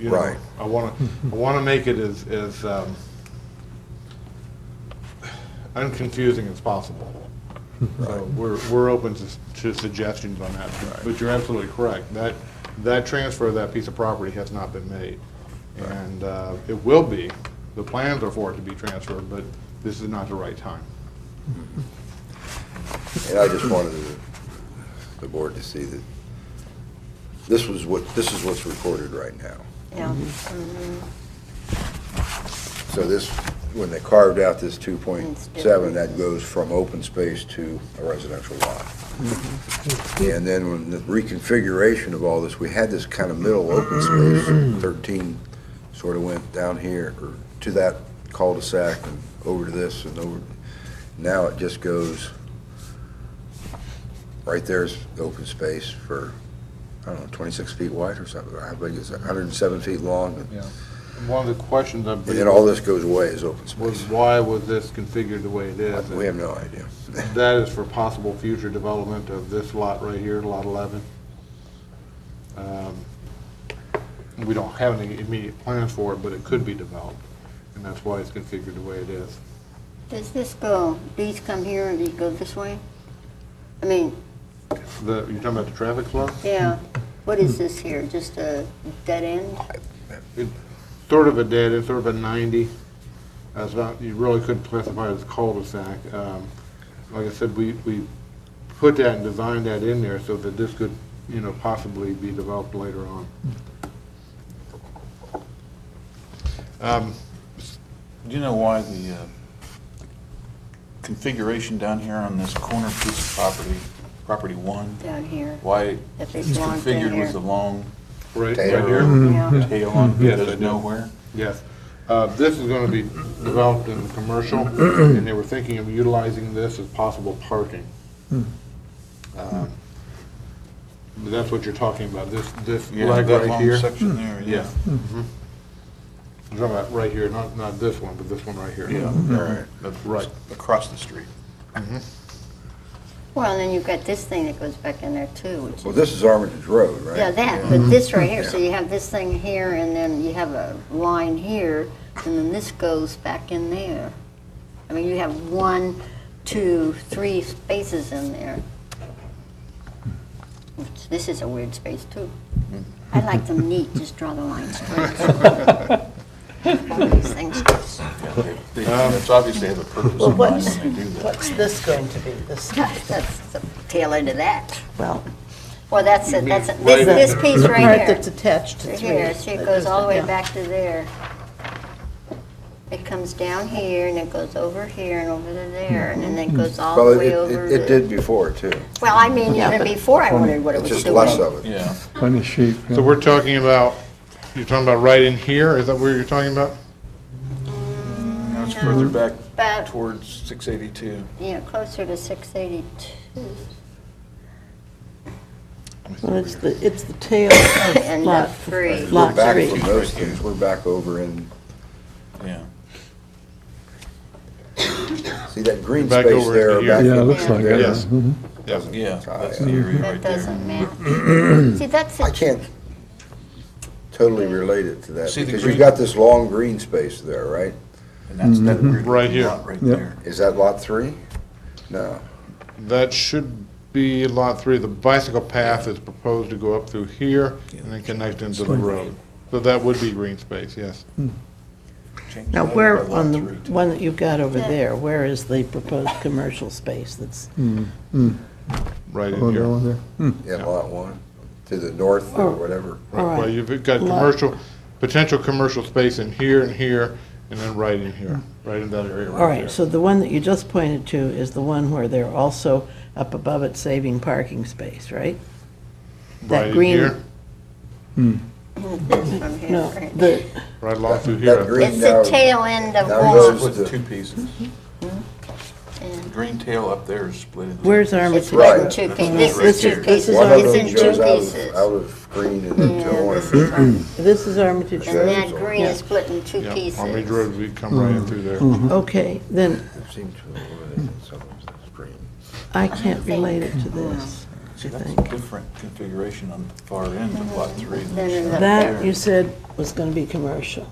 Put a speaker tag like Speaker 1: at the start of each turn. Speaker 1: you know.
Speaker 2: Right.
Speaker 1: I want to, I want to make it as, as um, unconfusing as possible. So We're, we're open to s- to suggestions on that, but you're absolutely correct. That, that transfer of that piece of property has not been made. And uh, it will be, the plans are for it to be transferred, but this is not the right time.
Speaker 2: And I just wanted the- the board to see that this was what, this is what's recorded right now.
Speaker 3: Yeah,
Speaker 2: So this, when they carved out this 2.7,
Speaker 3: different.
Speaker 2: that goes from open space to a residential lot. And then when the reconfiguration of all this, we had this kind of middle open space, 13 sort of went down here, or to that cul-de-sac and over to this and over. Now it just goes, right there's open space for, I don't know, 26 feet wide or something. How big is it? 107 feet long?
Speaker 1: Yeah. One of the questions I
Speaker 2: And then all
Speaker 1: believe
Speaker 2: this goes away as open space.
Speaker 1: was why was this configured the way it is?
Speaker 2: We have no idea.
Speaker 1: That is for possible future development of this lot right here, Lot 11. Um, We don't have any immediate plans for it, but it could be developed, and that's why it's configured the way it is.
Speaker 3: does this go, these come here and these go this way? I mean,
Speaker 1: The, you're talking about the traffic flow?
Speaker 3: yeah, what is this here, just a dead end?
Speaker 1: Sort of a dead, it's sort of a 90. That's not, you really couldn't classify it as cul-de-sac. Um, Like I said, we, we put that and designed that in there so that this could, you know, possibly be developed later on. Um,
Speaker 4: Do you know why the uh, configuration down here on this corner piece of property, property one,
Speaker 3: Down here,
Speaker 4: why
Speaker 3: if it's
Speaker 4: it's
Speaker 3: long down
Speaker 4: configured with
Speaker 3: here.
Speaker 4: the
Speaker 3: Mm-hmm.
Speaker 4: long
Speaker 1: Right, right here?
Speaker 3: Yeah.
Speaker 4: narrow tail on it
Speaker 1: Yes,
Speaker 4: that
Speaker 1: I
Speaker 4: goes
Speaker 1: do.
Speaker 4: nowhere?
Speaker 1: Yes. Uh, This is going to be developed in commercial, and they were thinking of utilizing this as possible parking. Um, but That's what you're talking about, this, this
Speaker 4: Yeah,
Speaker 1: leg
Speaker 4: that
Speaker 1: right
Speaker 4: long
Speaker 1: here.
Speaker 4: section there,
Speaker 1: Yeah.
Speaker 4: yeah.
Speaker 1: Mhm. I'm talking about right here, not, not this one, but this one right here.
Speaker 4: Yeah, right. That's
Speaker 1: Right.
Speaker 4: Across the street.
Speaker 3: Well, and then you've got this thing that goes back in there too, which
Speaker 2: Well,
Speaker 3: is,
Speaker 2: this is Armitage Road, right?
Speaker 3: yeah, that, but this right here, so you have this thing here, and then you have a line here, and then this goes back in there. I mean, you have one, two, three spaces in there. Which- This is a weird space too. I like them neat, just draw the line straight. All these things.
Speaker 4: Yeah, they-
Speaker 1: Um,
Speaker 4: they- It's obvious they have a purpose in mind
Speaker 5: What's,
Speaker 4: when they do that.
Speaker 5: what's this going to be? This,
Speaker 3: That's the tail end of that.
Speaker 5: well,
Speaker 3: Well, that's it,
Speaker 1: mean
Speaker 3: that's, it.
Speaker 1: right
Speaker 3: this, this piece right
Speaker 5: part
Speaker 3: here.
Speaker 5: that's attached to
Speaker 3: Right
Speaker 5: three.
Speaker 3: Here, see, it
Speaker 5: that
Speaker 3: goes all the way
Speaker 5: down.
Speaker 3: back to there. It comes down here, and it goes over here, and over to there, and then it goes all
Speaker 2: Well,
Speaker 3: the
Speaker 2: it-
Speaker 3: way
Speaker 2: it,
Speaker 3: over
Speaker 2: it- it
Speaker 3: to...
Speaker 2: did before, too.
Speaker 3: Well, I mean,
Speaker 5: Yeah,
Speaker 3: even
Speaker 5: but-
Speaker 3: before I wondered what it
Speaker 2: It's
Speaker 3: was
Speaker 2: just
Speaker 3: doing.
Speaker 2: less of it.
Speaker 4: Yeah,
Speaker 6: Plenty sheep.
Speaker 1: So we're talking about, you're talking about right in here, is that where you're talking about? Mm-hmm.
Speaker 4: now it's further back
Speaker 3: But,
Speaker 4: towards 682.
Speaker 3: you know, closer to 682.
Speaker 5: Well, it's the, it's the tail of
Speaker 3: And
Speaker 5: lot
Speaker 3: lot three.
Speaker 2: We're
Speaker 5: Lot
Speaker 2: back
Speaker 5: three.
Speaker 2: from those things, we're back over in,
Speaker 4: Yeah,
Speaker 2: see that green
Speaker 1: Back
Speaker 2: space
Speaker 1: over
Speaker 2: there?
Speaker 1: here.
Speaker 2: back
Speaker 6: Yeah, it
Speaker 2: up
Speaker 6: looks
Speaker 2: in
Speaker 6: like
Speaker 2: there.
Speaker 6: it.
Speaker 1: Yes.
Speaker 6: Mhm.
Speaker 1: Yes.
Speaker 4: yeah, that's the
Speaker 2: Yeah.
Speaker 4: area
Speaker 3: That
Speaker 4: right there.
Speaker 3: doesn't match. See, that's,
Speaker 2: I
Speaker 3: it.
Speaker 2: can't totally relate it to that,
Speaker 4: See the
Speaker 2: because you've
Speaker 4: green-
Speaker 2: got this long green space there, right?
Speaker 4: And that's that weird
Speaker 1: Mm-hmm. Right here.
Speaker 4: lot right
Speaker 6: Yep.
Speaker 4: there.
Speaker 2: Is that lot three? No.
Speaker 1: That should be Lot 3. The bicycle path is proposed to go up through here and then connect into the road. So that would be green space, yes.
Speaker 4: Change
Speaker 5: Now,
Speaker 4: that
Speaker 5: where,
Speaker 4: by lot
Speaker 5: on the
Speaker 4: three to-
Speaker 5: one that you've got over
Speaker 3: Yeah.
Speaker 5: there, where is the proposed commercial space that's,
Speaker 1: Right
Speaker 6: Oh,
Speaker 1: in
Speaker 6: no,
Speaker 1: here.
Speaker 6: there.
Speaker 2: In lot one, to the north or
Speaker 5: Oh.
Speaker 2: whatever.
Speaker 5: all
Speaker 1: Well,
Speaker 5: right,
Speaker 1: you've got
Speaker 5: Lot-
Speaker 1: commercial, potential commercial space in here and here, and then right in here, right in that area
Speaker 5: Hmm. all
Speaker 1: right
Speaker 5: right, so the one that you just pointed to is the one where they're also up above it saving parking space, right?
Speaker 1: there.
Speaker 5: that
Speaker 1: Right in
Speaker 5: green-
Speaker 1: here,
Speaker 3: this from here,
Speaker 5: No,
Speaker 3: right?
Speaker 5: the,
Speaker 1: right along through
Speaker 2: That
Speaker 1: here. I think.
Speaker 2: green-
Speaker 3: It's the
Speaker 2: now-
Speaker 3: tail end of
Speaker 2: now
Speaker 3: one.
Speaker 2: goes-
Speaker 4: Split in
Speaker 2: the-
Speaker 4: two pieces. The
Speaker 3: and
Speaker 4: green tail up there is split into.
Speaker 5: where's
Speaker 3: It's
Speaker 5: Armitage?
Speaker 3: split in
Speaker 2: Right.
Speaker 3: two
Speaker 4: This
Speaker 3: pieces,
Speaker 4: is
Speaker 3: this
Speaker 4: right
Speaker 3: is
Speaker 4: here.
Speaker 3: two pieces,
Speaker 2: One of
Speaker 3: it's in
Speaker 2: them goes
Speaker 3: two
Speaker 2: out of,
Speaker 3: pieces.
Speaker 2: out of green and into
Speaker 3: Yeah,
Speaker 2: orange.
Speaker 3: this is one.
Speaker 5: This is Armitage
Speaker 2: Yeah.
Speaker 3: And
Speaker 5: Road.
Speaker 3: that green is split in two
Speaker 1: Yeah,
Speaker 3: pieces.
Speaker 1: Army Road, we come right in through there.
Speaker 5: Okay, then
Speaker 2: It seems to eliminate some of the green.
Speaker 5: I can't relate it to this. don't you
Speaker 4: That's
Speaker 5: think?
Speaker 4: a different configuration on the far end of lot three. than
Speaker 3: Then
Speaker 4: you
Speaker 3: there's
Speaker 4: have
Speaker 3: that
Speaker 4: there.
Speaker 5: That, you said, was going to be commercial.